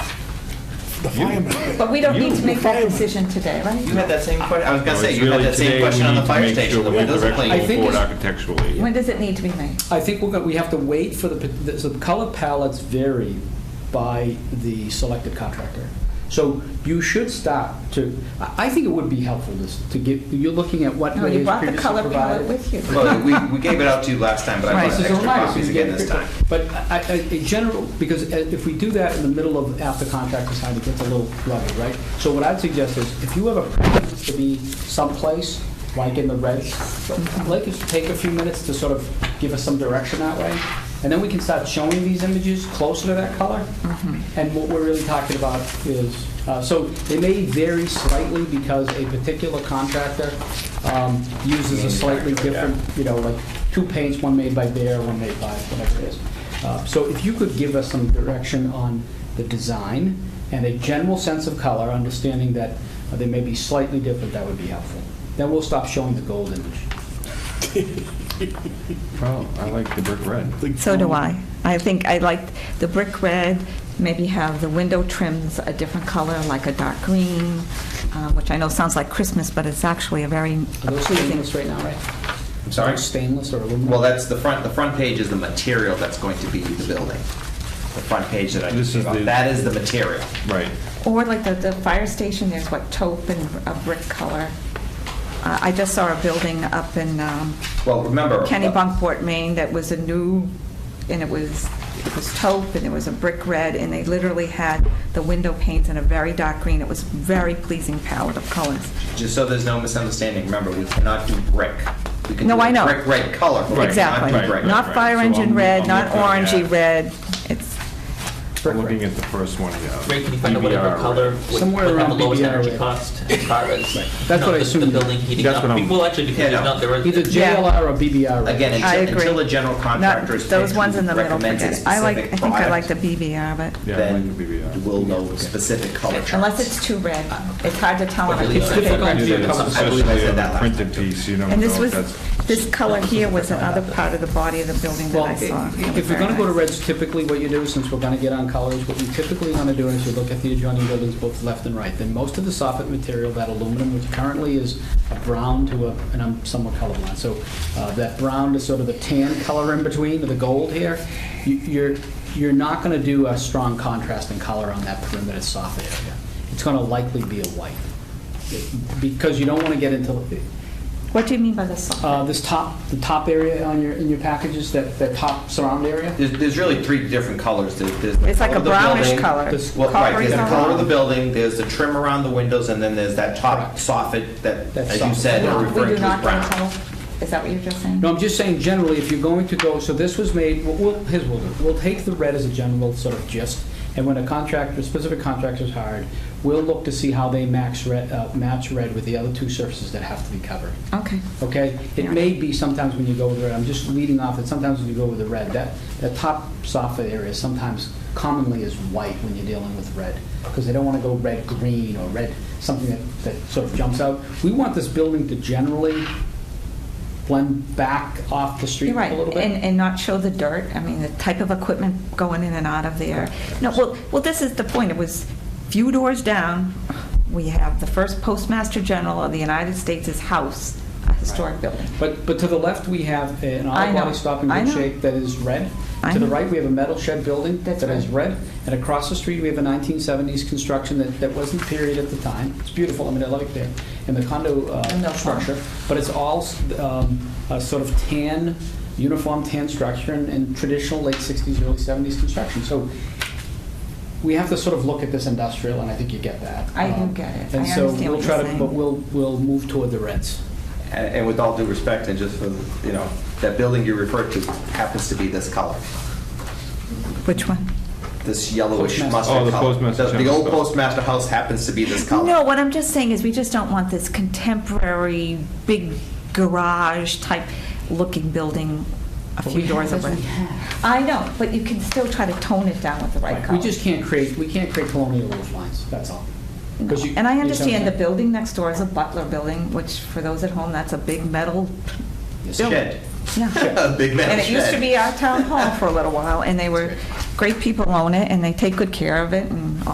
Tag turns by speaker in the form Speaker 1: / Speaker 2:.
Speaker 1: The firemen.
Speaker 2: But we don't need to
Speaker 1: You-
Speaker 2: make that
Speaker 1: firemen.
Speaker 2: decision today,
Speaker 3: You
Speaker 2: right?
Speaker 3: had that same question, I was gonna
Speaker 4: No,
Speaker 3: say,
Speaker 4: it's
Speaker 3: you had
Speaker 4: really
Speaker 3: that
Speaker 4: today
Speaker 3: same
Speaker 4: we
Speaker 3: question on
Speaker 4: need
Speaker 3: the
Speaker 4: to
Speaker 3: fire
Speaker 4: make sure
Speaker 3: station, the
Speaker 4: we have
Speaker 3: windows are
Speaker 4: direction
Speaker 3: clean.
Speaker 4: going
Speaker 5: think
Speaker 4: forward
Speaker 5: it's-
Speaker 4: Architecturally.
Speaker 2: When does it need to be made?
Speaker 5: I think we're going, we have to wait for the, the- so the color palettes vary by the selected contractor. So you should start to, I I think it would be helpful to, s- to give, you're looking at what.
Speaker 2: No, you
Speaker 5: was
Speaker 2: brought the
Speaker 5: previously
Speaker 2: color palette
Speaker 5: provided.
Speaker 2: with you.
Speaker 3: Well, we, we gave it out to you last time, but I
Speaker 5: Right,
Speaker 3: wanted
Speaker 5: so
Speaker 3: extra
Speaker 5: it's a reminder, so
Speaker 3: copies
Speaker 5: you
Speaker 3: again
Speaker 5: get
Speaker 3: this
Speaker 5: a
Speaker 3: time.
Speaker 5: quick- But I, I, in general, because uh, if we do that in the middle of, after contract is signed, it gets a little blurry, right? So what I'd suggest is, if you have a preference to be someplace, like in the red, like, us take a few minutes to sort of give us some direction that way, and then we can start showing these images closer to that color. And what we're really talking about is, uh, so they may vary slightly because a particular contractor um, uses a slightly different, you know, like two paints, one made by Bear, one made by whatever it is. Uh, So if you could give us some direction on the design and a general sense of color, understanding that uh, they may be slightly different, that would be helpful. Then we'll stop showing the gold image.
Speaker 4: Well, I like the brick red.
Speaker 2: So do I. I think I like the brick red, maybe have the window trims a different color, like a dark green, uh, which I know sounds like Christmas, but it's actually a very
Speaker 5: Are those
Speaker 2: pleasing.
Speaker 5: stainless right now, right?
Speaker 3: I'm sorry?
Speaker 5: Stainless or aluminum?
Speaker 3: Well, that's the front, the front page is the material that's going to be the building. The front page that I
Speaker 4: This
Speaker 3: just
Speaker 4: is
Speaker 3: gave out,
Speaker 4: the-
Speaker 3: that is the material.
Speaker 4: Right.
Speaker 2: Or like the, the fire station, there's what, taupe and a brick color. Uh, I just saw a building up in um,
Speaker 3: Well, remember.
Speaker 2: Kennebunkport, Maine, that was a new, and it was, it was taupe, and it was a brick red, and they literally had the window panes in a very dark green. It was very pleasing palette of colors.
Speaker 3: uh, Just so there's no misunderstanding, remember, we cannot do brick. We can
Speaker 2: No,
Speaker 3: do
Speaker 2: I know.
Speaker 3: Brick red color, but we cannot
Speaker 2: Exactly.
Speaker 3: do
Speaker 4: Right,
Speaker 3: brick.
Speaker 4: right,
Speaker 2: Not
Speaker 4: right.
Speaker 2: fire
Speaker 4: So
Speaker 2: engine
Speaker 4: I'm-
Speaker 2: red,
Speaker 4: I'm
Speaker 2: not
Speaker 4: looking at-
Speaker 2: orangey red. It's,
Speaker 4: I'm looking at the first one, yeah.
Speaker 6: Ray, can you find out whatever
Speaker 4: BBR
Speaker 6: color would
Speaker 5: Somewhere
Speaker 6: would have the
Speaker 5: around
Speaker 6: lowest
Speaker 5: BBR
Speaker 6: energy
Speaker 5: rate.
Speaker 6: cost as far as, you
Speaker 5: That's
Speaker 6: know,
Speaker 5: what I
Speaker 6: the- the
Speaker 5: assumed.
Speaker 6: building heating
Speaker 4: That's
Speaker 6: up?
Speaker 4: what I'm-
Speaker 6: Well, actually,
Speaker 3: Yeah,
Speaker 6: because there's
Speaker 3: no.
Speaker 6: not, there
Speaker 5: Either
Speaker 6: is,
Speaker 5: JLR or BBR. right?
Speaker 3: Again,
Speaker 2: I
Speaker 3: until,
Speaker 2: agree.
Speaker 3: until a general
Speaker 2: not,
Speaker 3: contractor is.
Speaker 2: those ones in the middle,
Speaker 3: recommends a
Speaker 2: forget it. I like, I
Speaker 3: specific
Speaker 2: think I like
Speaker 3: product,
Speaker 2: the BBR, but
Speaker 4: Yeah, I like the BBR.
Speaker 3: Then we'll know specific color charts.
Speaker 2: unless it's too red, it's hard to tell. on a
Speaker 6: Really,
Speaker 2: picture.
Speaker 6: it's difficult to be a
Speaker 4: It's
Speaker 6: couple-
Speaker 3: I believe I
Speaker 4: Especially
Speaker 3: said
Speaker 4: on
Speaker 3: that
Speaker 4: the
Speaker 3: last
Speaker 4: printed piece, you don't know
Speaker 2: And this
Speaker 4: if
Speaker 2: was,
Speaker 4: that's.
Speaker 2: this color here was another part of the body of the building that
Speaker 5: Well,
Speaker 2: I saw. It
Speaker 5: if
Speaker 2: was
Speaker 5: if you're going to
Speaker 2: very
Speaker 5: go to
Speaker 2: nice.
Speaker 5: reds, typically what you do, since we're going to get on colors, what you typically want to do is you look at the adjoining buildings both left and right. Then most of the soffit material, that aluminum, which currently is a brown to a, and I'm somewhat colorblind, so uh, that brown to sort of the tan color in between, to the gold here, you- you're, you're not going to do a strong contrast in color on that perimeter soffit area. It's going to likely be a white, because you don't want to get into,
Speaker 2: What do you mean by the
Speaker 5: uh,
Speaker 2: soft?
Speaker 5: this top, the top area on your, in your packages, that, that top surround area?
Speaker 3: There's, there's really three different colors. There's, there's the
Speaker 2: It's like
Speaker 3: color
Speaker 2: a
Speaker 3: of the
Speaker 2: brownish
Speaker 3: building-
Speaker 2: color.
Speaker 5: this-
Speaker 3: Well, right, there's the
Speaker 2: Coppery
Speaker 3: color of the building, there's the trim around the windows, and then there's that top
Speaker 5: Correct.
Speaker 3: soffit that,
Speaker 5: That
Speaker 3: as you
Speaker 5: soffit.
Speaker 3: said, are
Speaker 2: No, We
Speaker 3: referring
Speaker 2: do
Speaker 3: to as
Speaker 2: not get
Speaker 3: brown.
Speaker 2: color. Is that what you're just saying?
Speaker 5: No, I'm just saying generally, if you're going to go, so this was made, we'll- we'll, here's what we'll do. We'll take the red as a general sort of gist, and when a contractor, a specific contractor is hired, we'll look to see how they max red, uh, match red with the other two surfaces that have to be covered.
Speaker 2: Okay.
Speaker 5: Okay? It
Speaker 2: Yeah.
Speaker 5: may be sometimes when you go with the red, I'm just leading off that sometimes when you go with the red, that, that top soffit area sometimes commonly is white when you're dealing with red, because they don't want to go red-green or red, something that, that sort of jumps out. We want this building to generally blend back off the street
Speaker 2: You're
Speaker 5: a
Speaker 2: right,
Speaker 5: little bit.
Speaker 2: and, and not show the dirt, I mean, the type of equipment going in and out of there. No, well, well, this is the point, it was few doors down, we have the first Postmaster General of the United States' house, a historic building.
Speaker 5: But, but to the left, we have an
Speaker 2: I
Speaker 5: auto
Speaker 2: know.
Speaker 5: body stop in
Speaker 2: I
Speaker 5: good
Speaker 2: know.
Speaker 5: shape that is red.
Speaker 2: I
Speaker 5: To the
Speaker 2: know.
Speaker 5: right, we have a metal shed building that
Speaker 2: That's
Speaker 5: is
Speaker 2: right.
Speaker 5: red. And across the street, we have a 1970s construction that, that wasn't period at the time. It's beautiful, I mean, I love it there. And the condo uh,
Speaker 2: And no farm.
Speaker 5: structure, but it's all um, a sort of tan, uniform tan structure and- and traditional late 60s, early 70s construction. So we have to sort of look at this industrial, and I think you get that.
Speaker 2: I do
Speaker 5: Um,
Speaker 2: get it.
Speaker 5: And
Speaker 2: I
Speaker 5: so
Speaker 2: understand
Speaker 5: we'll
Speaker 2: what
Speaker 5: try
Speaker 2: you're
Speaker 5: to,
Speaker 2: saying.
Speaker 5: but we'll, we'll move toward the reds.
Speaker 3: And, and with all due respect, and just for, the- you know, that building you referred to happens to be this color,
Speaker 2: Which one?
Speaker 3: this yellowish
Speaker 5: Postmaster.
Speaker 3: mustard
Speaker 4: Oh,
Speaker 3: color.
Speaker 4: the postmaster
Speaker 3: The- The
Speaker 4: general
Speaker 3: old
Speaker 4: store.
Speaker 3: postmaster house happens to be this color.
Speaker 2: No, what I'm just saying is, we just don't want this contemporary, big garage-type looking building a
Speaker 5: But
Speaker 2: few
Speaker 5: we
Speaker 2: doors
Speaker 5: have-
Speaker 2: away. I know, but you can still try to tone it down with the right color.
Speaker 5: We just can't create, we can't create colonial roof lines, that's all. 'Cause you-
Speaker 2: And I
Speaker 5: you
Speaker 2: understand the
Speaker 5: don't-
Speaker 2: building next door is a Butler building, which for those at home, that's a big metal,
Speaker 5: Yes.
Speaker 3: Shed,
Speaker 2: yeah.
Speaker 3: a big metal shed.
Speaker 2: And it used to be our town hall for a little while, and they were, great people own it, and they take good care of it and